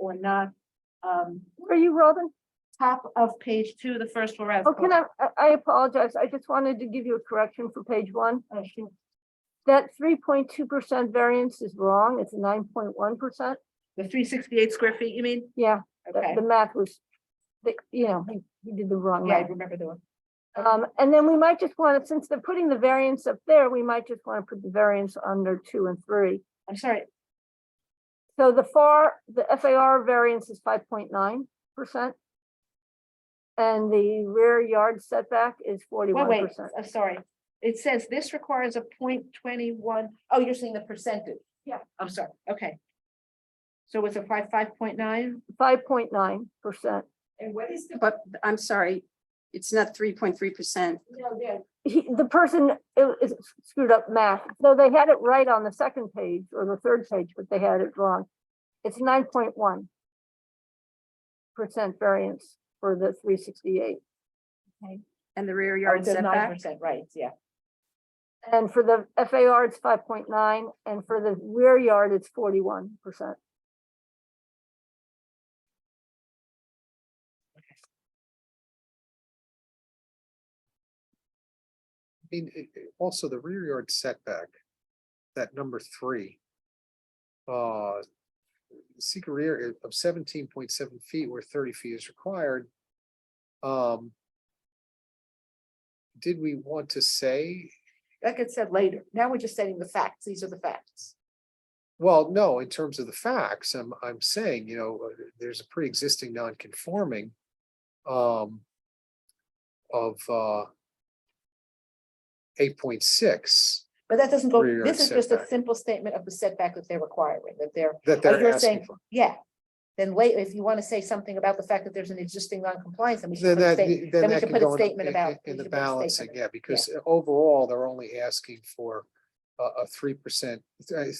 people and not, um, Where Are you, Robin? top of page two, the first where I've. Oh, can I, I- I apologize. I just wanted to give you a correction for page one. Oh, shoot. That three point two percent variance is wrong. It's nine point one percent. The three sixty-eight square feet, you mean? Yeah, the, Okay, the math was, the, you know, he, he did the wrong yeah, I math. remember the one. Um, and then we might just want to, since they're putting the variance up there, we might just want to put the variance under two and three. I'm sorry, So the FAR, the FAR variance is five point nine percent. And the rear yard setback is wait, forty-one wait, percent. I'm sorry. It says this requires a point twenty-one, oh, you're seeing the percentage? Yeah. I'm sorry, okay. So it's a five, five point nine? Five point nine percent. And what is the? But I'm sorry, it's not three point three percent. No, yeah. He, the person i- is screwed up math, though they had it right on the second page or the third page, but they had it wrong. It's nine point one percent variance for the three sixty-eight. And the rear yard Nine setback, percent, right, yeah. And for the FAR, it's five point nine, and for the rear yard, it's forty-one percent. I mean, it- it- also the rear yard setback, that number three. Uh, seek a rear i- of seventeen point seven feet where thirty feet is required. Um. Did we want to say, Like it said later, now we're just setting the facts, these are the facts. well, no, in terms of the facts, I'm, I'm saying, you know, uh, there's a pre-existing non-conforming. Um. Of, uh. Eight point six But that doesn't go, Rear yard this is just a setback. simple statement of the setback that they're requiring, that they're that But they're you're asking saying, for. yeah, then wait, if you want to say something about the fact that there's an existing non-compliance, then we should Then put a that, statement. then we that should could put a go in the- statement in- about- in- we in the should put a statement balancing, about- yeah, because overall, they're only asking for a, a three percent,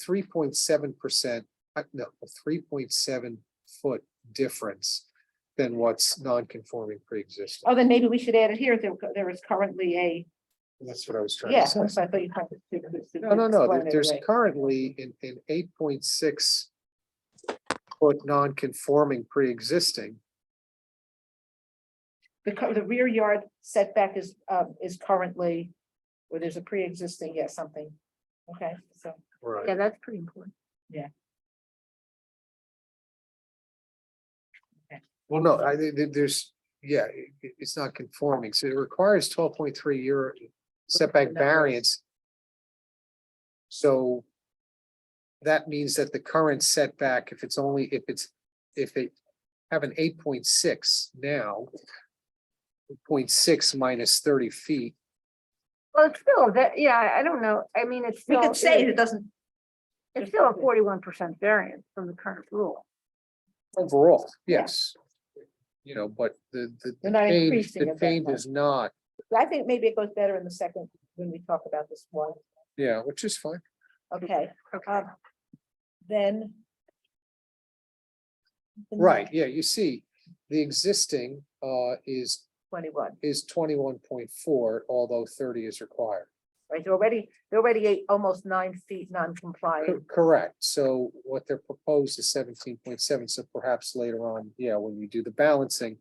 three point seven percent, uh, no, a three point seven foot difference than what's non-conforming pre-existing. Oh, then maybe we should add it here, there, there is currently a, That's what I was trying yeah, to so say. I thought you. had to- to- No, no, no, explain there- it there's away. currently in, in eight point six foot non-conforming pre-existing, The, cur- the rear yard setback is, um, is currently, or there's a pre-existing, yeah, something. Okay, so, right, Yeah, that's pretty important. well, no, I, think that there's, yeah, it- it- it's not conforming, so it requires twelve point three year setback Numbers. variance. So that means that the current setback, if it's only, if it's, if they have an eight point six now, 0.6 minus thirty feet, Well, it's still, that, yeah, I- I don't know, I mean, it's we still, could say it it's doesn't, still a forty-one percent variance from the current rule. overall, Yeah. yes. You know, but the, the They're the not change, increasing the it that change much. is not, I think maybe it goes better in the second, when we talk about this one. yeah, which is fine. Okay, Okay. um, then. Right, yeah, you see, the existing uh is Twenty-one, is twenty-one point four, although thirty is required. right, they're already, they're already eight, almost nine feet Cor- non-compliant, Correct, so what they're proposed is seventeen point seven, so perhaps later on, yeah, when you do the balancing.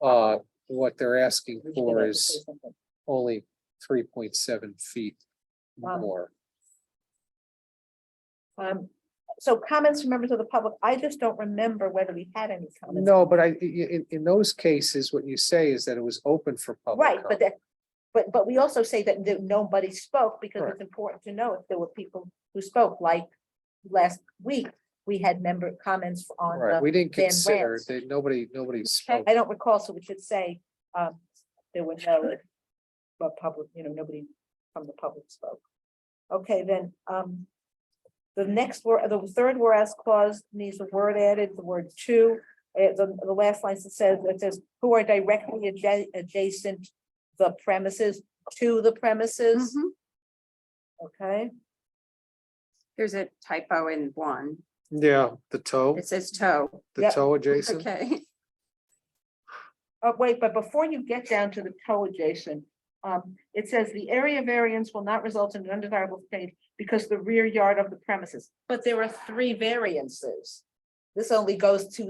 Uh, what they're asking We should for like to is say something. only three point seven feet Um, more. Um, so comments from members of the public, I just don't remember whether we had any comments. No, but I, i- i- in in those cases, what you say is that it was open for public. Right, but comment. that, but, but we also say that there- nobody spoke, because it's Correct. important to know if there were people who spoke, like last week, we had member comments on Right, the, we didn't Van consider, Rant. that nobody, nobody spoke, I don't recall, so we should say, um, there were no but public, you know, nobody from the public spoke. Okay, then, um, the next word, the third whereas clause needs a word added, the word to, uh, the, the last line that says, it says, who are directly adja- adjacent the premises, to the premises, Mhm. okay? there's a typo in one, yeah, the toe, it says toe, the yeah, toe adjacent. okay, Oh, wait, but before you get down to the toe adjacent, um, it says the area variance will not result in an undesirable change because the rear yard of the premises. But there are three variances. This only goes to